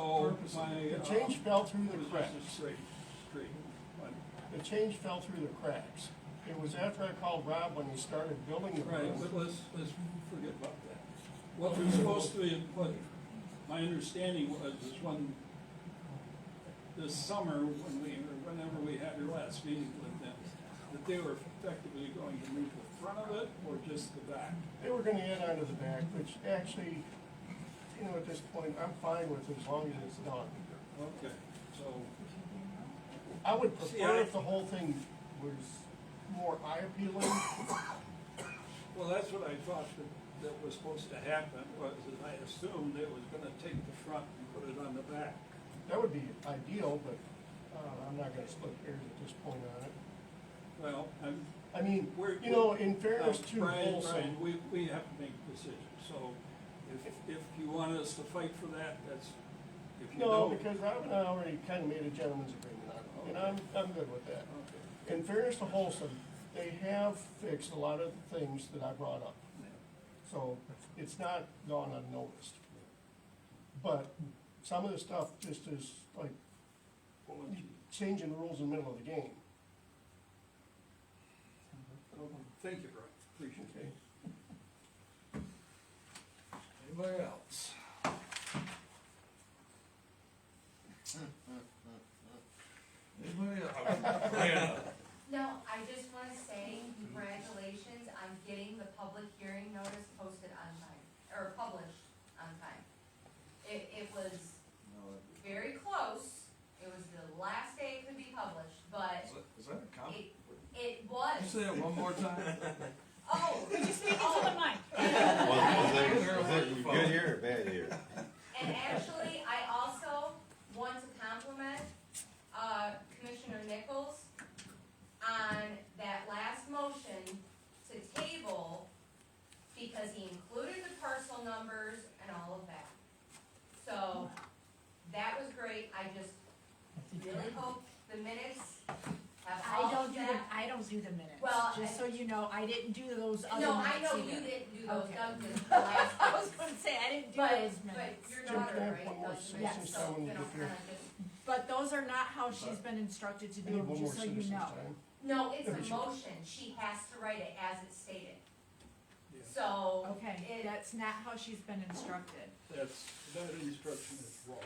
my. The uh, change fell through the was just a cracks. Straight, straight. one. The change fell through the cracks. It was after I called Rob when he started building the Right, room. but let's, let's forget about that. What we're supposed to, be- what, my understanding was, is when, this summer, when we, or whenever we had your last meeting with them, that they were effectively going to move the front of it or just the back. They were gonna add onto the back, which actually, you know, at this point, I'm fine with it as long as it's done. Okay, so, I would See, I- prefer if the whole thing was more eye appealing. well, that's what I thought that, that was supposed to happen, was that I assumed it was gonna take the front and put it on the back. That would be ideal, but, uh, I'm not gonna split hairs at this point on it. Well, I'm, I mean, We're- you know, in fairness Uh, to Brian, Brian, Olson, we, we have to make decisions, so if, if you want us to fight for that, that's, if you no, don't. because Rob and I already kind of made a gentleman's agreement on it, and I'm, I'm good with that. Okay. In fairness to Holson, they have fixed a lot of the things that I brought up, so it's not gone unnoticed. But some of the stuff just is like We'll let you- changing the rules in the middle of the game, okay. Thank you, Brian, appreciate okay? it. Anybody else? Anybody else? Brianna. No, I just wanna say congratulations on getting the public hearing notice posted on time, or published on time. It, it was very close, it was the last day it could be published, but Is that- Is that a comment? it, it was, Say it one more time. oh, You're speaking to the mic. Was, was it, was it good year or bad year? and actually, I also want to compliment, uh, Commissioner Nichols on that last motion to table because he included the parcel numbers and all of that. So, that was great, I just really hope the minutes have I all don't of do, the- that. I don't do the minutes, Well, I- just so you know, I didn't do those other No, I minutes know you either. didn't do those, Okay. Doug did the last. I was gonna say, I didn't do But, those but minutes, your Jim, can I daughter, have right, one more does the minutes, citizen's so, time when you you know, get here? kinda just- but those are not how she's been instructed to I do need them, one more just so you citizen's know. time. No, it's Maybe she- a motion, she has to write it as it's stated, Yeah, so. Okay, it- that's not how she's been instructed. That's, that instruction is wrong.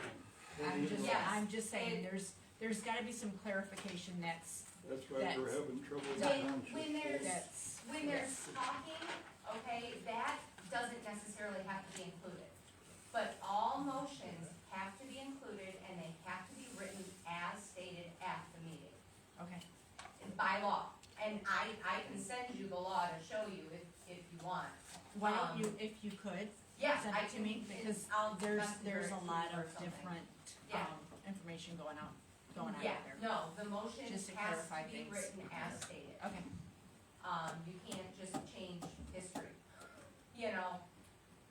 I'm just, Yes. I'm just saying, It- there's, there's gotta be some clarification that's, That's why we're that's- having trouble with When- township. when there's- that's. When they're talking, okay, that doesn't necessarily have to be included. But all motions have to be included and they have to be written as stated at the meeting, Okay, by law. And I, I can send you the law to show you if, if you want. why don't Um, you, if you could, Yes, send I it to can, me, because I'll there's, messenger there's it a to you lot or of something. different, Yeah. um, information going out, going out Yeah, there. no, the motion has Just to to clarify be things. written as stated. Okay, Um, you can't just change history, you know,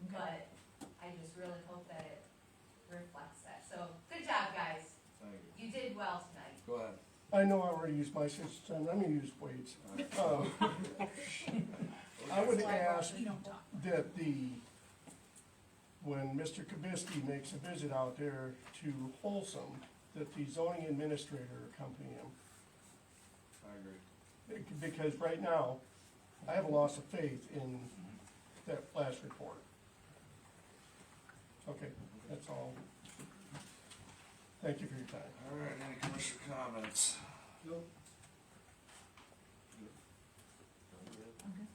okay. but I just really hope that it reflects that. So, good job, guys. Thank you. You did well tonight. Go ahead. I know I already used my citizen's time, I'm gonna use Wade's. Uh, I would ask You don't talk. that the, when Mr. Kabisky makes a visit out there to Wholesome, that the zoning administrator accompany him. I agree. Bec- Because right now, I have a loss of faith in that last report. Okay, that's all. Thank you for your time. All right, any commercial comments? Nope. Okay.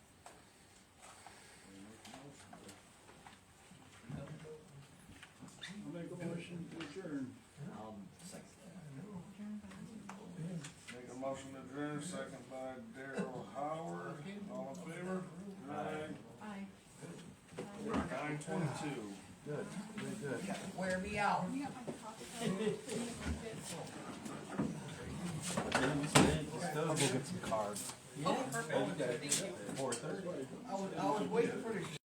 I'll make a motion to adjourn. Make a motion to adjourn, second by Daryl Howard, all in favor? Aye. Bye. Nine twenty-two. Wear me out. Let's go get some cards. Oh, perfect. Four thirty. I was, I was waiting for the